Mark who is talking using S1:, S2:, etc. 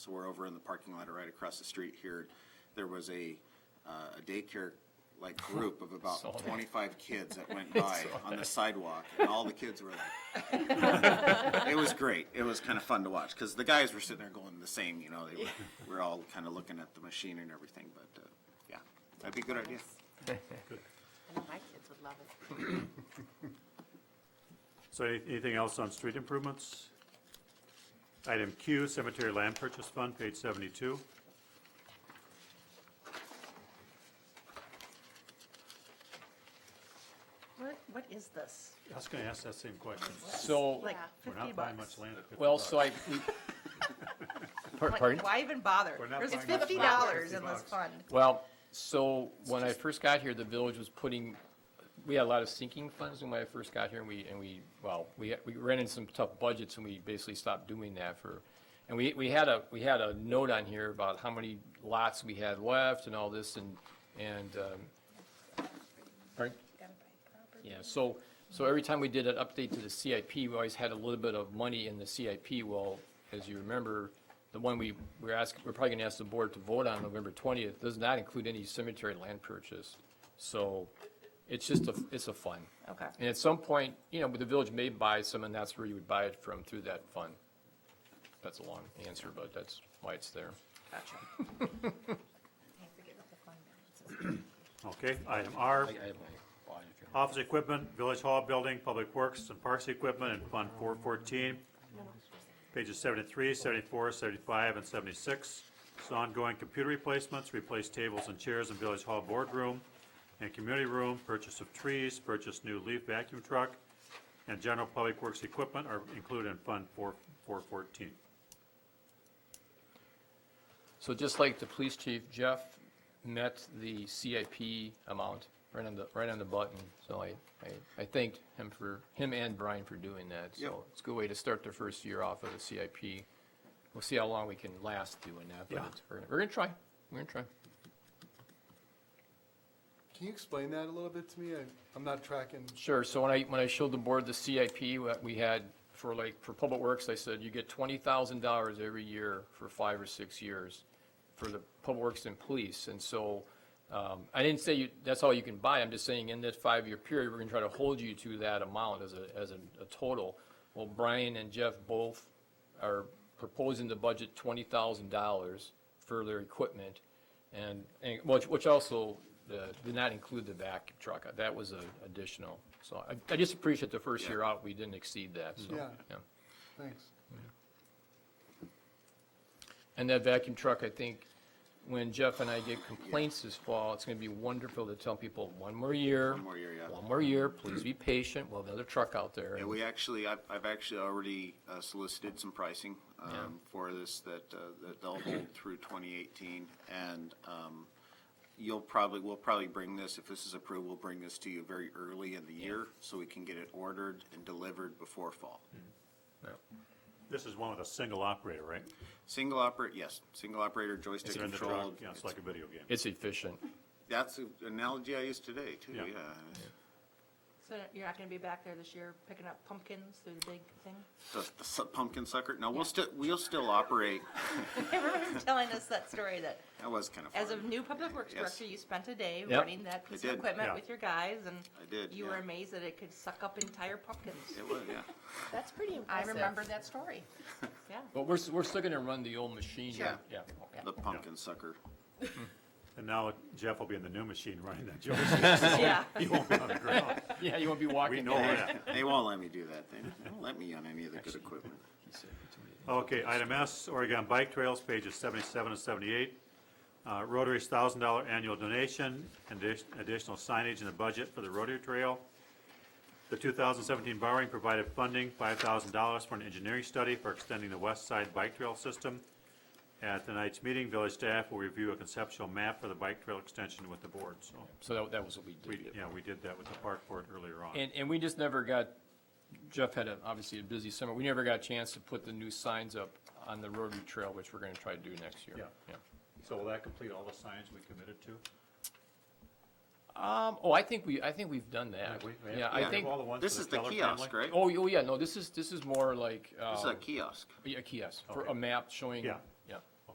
S1: So we're over in the parking lot right across the street here. There was a, uh, a daycare-like group of about
S2: Saw that.
S1: twenty-five kids that went by on the sidewalk, and all the kids were like. It was great. It was kind of fun to watch, because the guys were sitting there going the same, you know, they were, we're all kind of looking at the machine and everything, but, uh, yeah, that'd be a good idea.
S3: I know my kids would love it.
S4: So any- anything else on street improvements? Item Q, cemetery land purchase fund, page 72.
S3: What, what is this?
S4: I was going to ask that same question.
S2: So,
S3: Like Yeah.
S4: Oh, We're
S3: fifty
S4: not buying much
S3: bucks?
S4: land at 50
S2: well,
S4: bucks.
S2: so I, we- Par-
S3: Like,
S2: pardon?
S3: Why even bother?
S4: We're not
S3: There's
S4: buying much
S3: fifty
S4: land at
S3: dollars
S4: 50
S3: in this
S4: bucks.
S3: fund.
S2: Well, so when I first got here, the village was putting, we had a lot of sinking funds when I first got here and we, and we, well, we, we ran into some tough budgets and we basically stopped doing that for, and we, we had a, we had a note on here about how many lots we had left and all this and, and, um, pardon? Yeah, so, so every time we did an update to the CIP, we always had a little bit of money in the CIP. Well, as you remember, the one we, we're asking, we're probably gonna ask the board to vote on November twentieth, does not include any cemetery land purchase. So it's just a, it's a fund.
S3: Okay.
S2: And at some point, you know, the village may buy some, and that's where you would buy it from, through that fund. That's a long answer, but that's why it's there.
S3: Gotcha.
S4: Okay, item R,
S2: I- I have my line if you're-
S4: office equipment, village hall building, public works and parks equipment, and fund 414. Pages 73, 74, 75, and 76. So ongoing computer replacements, replace tables and chairs in village hall boardroom and community room, purchase of trees, purchase new leaf vacuum truck, and general public works equipment are included in Fund 4 414.
S2: So just like the police chief, Jeff met the CIP amount right on the, right on the button. So I, I, I thanked him for, him and Brian for doing that. So
S1: Yep.
S2: it's a good way to start the first year off of the CIP. We'll see how long we can last doing that, but
S4: Yeah.
S2: it's- we're, we're gonna try, we're gonna try.
S5: Can you explain that a little bit to me? I, I'm not tracking.
S2: Sure, so when I, when I showed the board the CIP, what we had for like, for Public Works, I said, you get twenty thousand dollars every year for five or six years for the Public Works and Police, and so, um, I didn't say you, that's all you can buy, I'm just saying in that five-year period, we're gonna try to hold you to that amount as a, as a, a total. Well, Brian and Jeff both are proposing to budget twenty thousand dollars for their equipment, and, and, which, which also, uh, did not include the vacuum truck, that was a additional. So I, I just appreciate the first year out, we didn't exceed that, so.
S5: Yeah. Thanks.
S2: And that vacuum truck, I think, when Jeff and I get complaints this fall, it's gonna be wonderful to tell people, one more year.
S1: One more year, yeah.
S2: One more year, please be patient, we'll have another truck out there.
S1: Yeah, we actually, I've, I've actually already uh, solicited some pricing um, for this that, uh, that they'll hold through 2018. And um, you'll probably, we'll probably bring this, if this is approved, we'll bring this to you very early in the year so we can get it ordered and delivered before fall.
S4: Mm.
S2: Yeah.
S4: This is one with a single operator, right?
S1: Single operate, yes, single operator joystick
S4: It's in the truck.
S1: controlled.
S4: Yeah, it's like a video game.
S2: It's efficient.
S1: That's an analogy I used today too,
S4: Yeah.
S1: yeah.
S3: So you're not gonna be back there this year picking up pumpkins through the big thing?
S1: The the su- pumpkin sucker, no, we'll still, we'll still operate.
S3: Everyone's telling us that story that
S1: That was kind of fun.
S3: as a new public works
S1: Yes.
S3: director, you spent a day
S2: Yep.
S3: running that piece of
S1: did.
S3: equipment
S4: Yeah.
S3: with your guys and
S1: I did,
S3: you were
S1: yeah.
S3: amazed that it could suck up entire pumpkins.
S1: It was, yeah.
S6: That's pretty
S3: I
S6: impressive.
S3: remember that story. Yeah.
S2: But we're, s- we're still gonna run the old machine.
S1: Sure.
S2: Yeah, okay.
S1: The pumpkin sucker.
S4: And now Jeff will be in the new machine running that joystick.
S3: Yeah.
S4: He won't be on the ground.
S2: Yeah, you won't be walking.
S4: We know that.
S1: They won't let me do that thing. They won't let me on any of the good equipment.
S4: Okay, item S, Oregon Bike Trails, pages 77 and 78. Uh, Rotary's $1,000 annual donation, and addi- additional signage in the budget for the Rotary Trail. The 2017 borrowing provided funding, $5,000 for an engineering study for extending the west side bike trail system. At tonight's meeting, village staff will review a conceptual map for the bike trail extension with the board, so,
S2: So that, that was what we did.
S4: we, yeah, we did that with the park board earlier on.
S2: And, and we just never got, Jeff had a, obviously a busy summer, we never got a chance to put the new signs up on the Rotary Trail, which we're gonna try to do next year.
S4: Yeah. So will that complete all the signs we committed to?
S2: Um, oh, I think we, I think we've done that. Uh, Yeah, I
S1: Yeah.
S2: think,
S4: All the
S2: oh,
S4: ones
S1: This
S4: for
S1: is the
S4: Keller
S1: kiosk,
S4: family?
S1: right?
S2: oh, yeah, no, this is, this is more like,
S1: This is a
S2: um,
S1: kiosk.
S2: a kiosk, for
S4: Okay.
S2: a map showing
S4: Yeah.